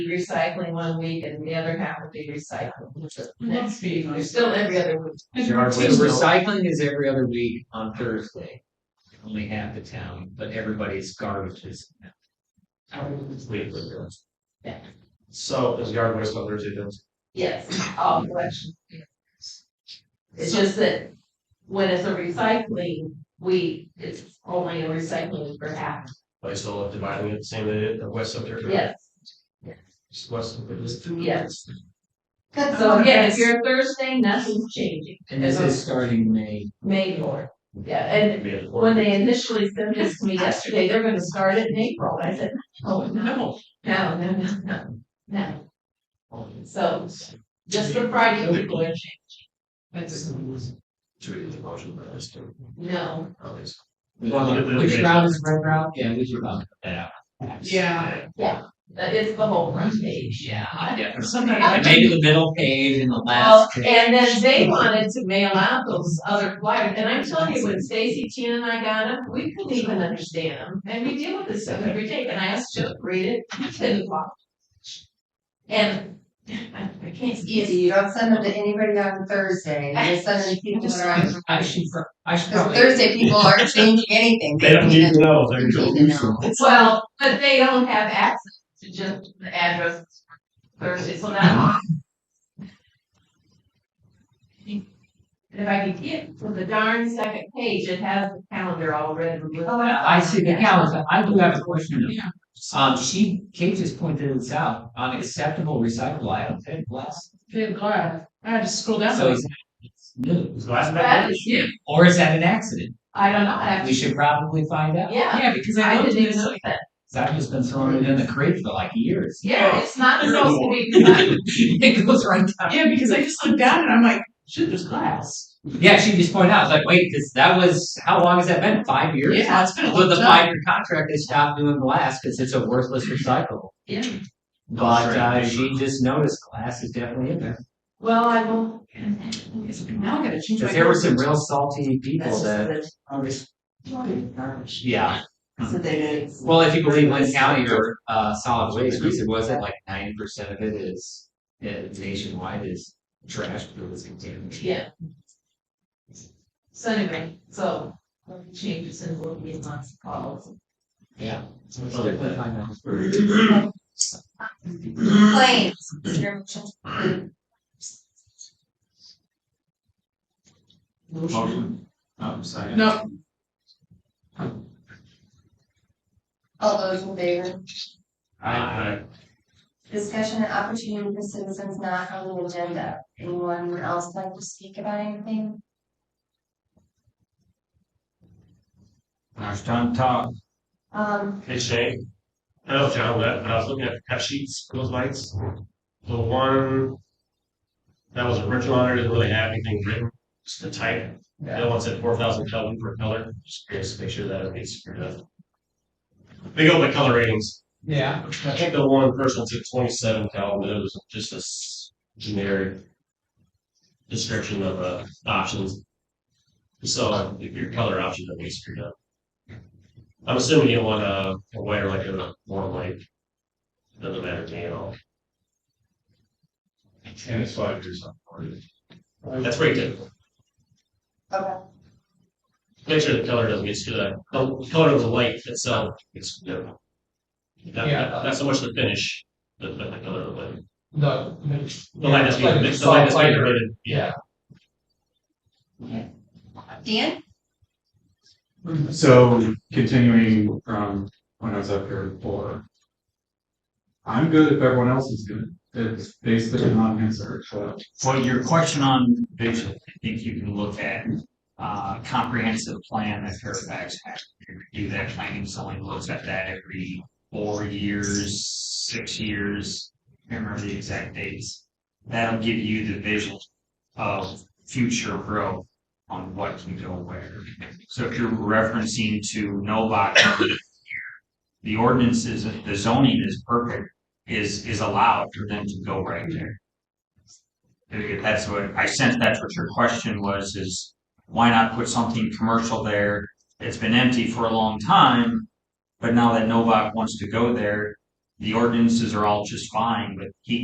recycling one week and the other half would be recycling, which is next week, we're still every other week. So recycling is every other week on Thursday. Only half the town, but everybody's garbage is. So is yard waste on Thursday then? Yes, all collection. It's just that when it's a recycling, we, it's only a recycling for half, But I still have dividing it the same way the west up there. yes. Just west of it is two. Yes. So yeah, if you're Thursday, nothing's changing, And this is starting May. May more, yeah, and Maybe it's four. when they initially sent this to me yesterday, they're gonna start it in April, I said, oh, no, No. no, no, no, no, no. So, just the Friday people are changing, That's. Should we do the motion for this too? no, Okay, so- Which route is red route? Yeah, we should route that out. Yeah. that is the whole front page. Yeah. Sometimes. Maybe the middle page and the Well, last. page. and then they wanted to mail out those other flyers, and I'm telling you, when Stacy, Tina and I got them, we couldn't even understand them, and we deal with this stuff every day, and I asked Joe to read it, he couldn't walk. And I I can't see easy, it, you don't send them to anybody on Thursday, you just send them to people that are on. I should, pro- I should Cause probably. Thursday people aren't changing anything. They don't need to know, they're They just. need to know. well, but they don't have access to just the address Thursday, so now. And if I could get to the darn second page, it has the calendar all red and blue. Oh, I see the calendar. I do have a question. Yeah. Um, she, Kate just pointed this out, unacceptable recyclable items, hey, bless. Good God. I had to scroll down. So is that, it's new, Is last That night? is- or is that an accident? I don't know, I have We to, should probably find out. yeah, Yeah, because I I looked didn't at even this, know like, that. That has been thrown in the crate for like years. Yeah, it's not You're supposed to be, It goes right down. yeah, because I just looked down and I'm like, shit, there's glass. Yeah, she just pointed out, like, wait, because that was, how long has that been? Five years? Yeah, it's been a With long the time. five-year contract, they stopped doing glass because it's a worthless recycle. yeah. But Sure. uh, she just noticed glass is definitely in there. Well, I will. Now I gotta change my. Because there were some real salty people that, yeah. So they did. Well, if you believe Lynn County or uh, solid waste, because it wasn't like ninety percent of it is uh, nationwide is trash that was contaminated. Yeah. So anyway, so, um, changes and will be in lots of calls. Yeah. So they put it Claims. Is there a motion? Motion. Um, I'm sorry. No, All those in favor? I, Discussion and opportunity for citizens not on the agenda. Anyone else like to speak about anything? I. John Todd. Um, Hey Shane. I know John left, but I was looking at the cut sheets, those lights. The one that was original on there didn't really have anything written, just the type. The other one said four thousand Kelvin per color. Just curious to make sure that everything's screwed up. They go by uh, color ratings. Yeah. I think the one person took twenty-seven Kelvin, it was just a s- generic description of, uh, options. So uh, if your color option doesn't get screwed up. I'm assuming you want a, a way or like a warm light. Doesn't matter to me at all. And it's five years on. That's pretty typical. okay. Make sure the color doesn't get screwed up. The color of the light itself gets screwed up. Not, not- not so much the finish, but, but the color of the light. No. no, The light has like been, a the light has soft been lighter. rated, yeah. Dan? So continuing from when I was up here before. I'm good if everyone else is good. It's basically a non-answer, but For your question on vision, I think you can look at uh comprehensive plan that Fairfax has. You can Do that planning, someone looks at that every four years, six years, I can't remember the exact dates. That'll give you the vision of future growth on what can go where. So if you're referencing to no lot coverage here, the ordinance is, the zoning is perfect, is is allowed for them to go right there. If that's what, I sense that's what your question was, is why not put something commercial there? It's been empty for a long time, but now that Novak wants to go there, the ordinances are all just fine, but he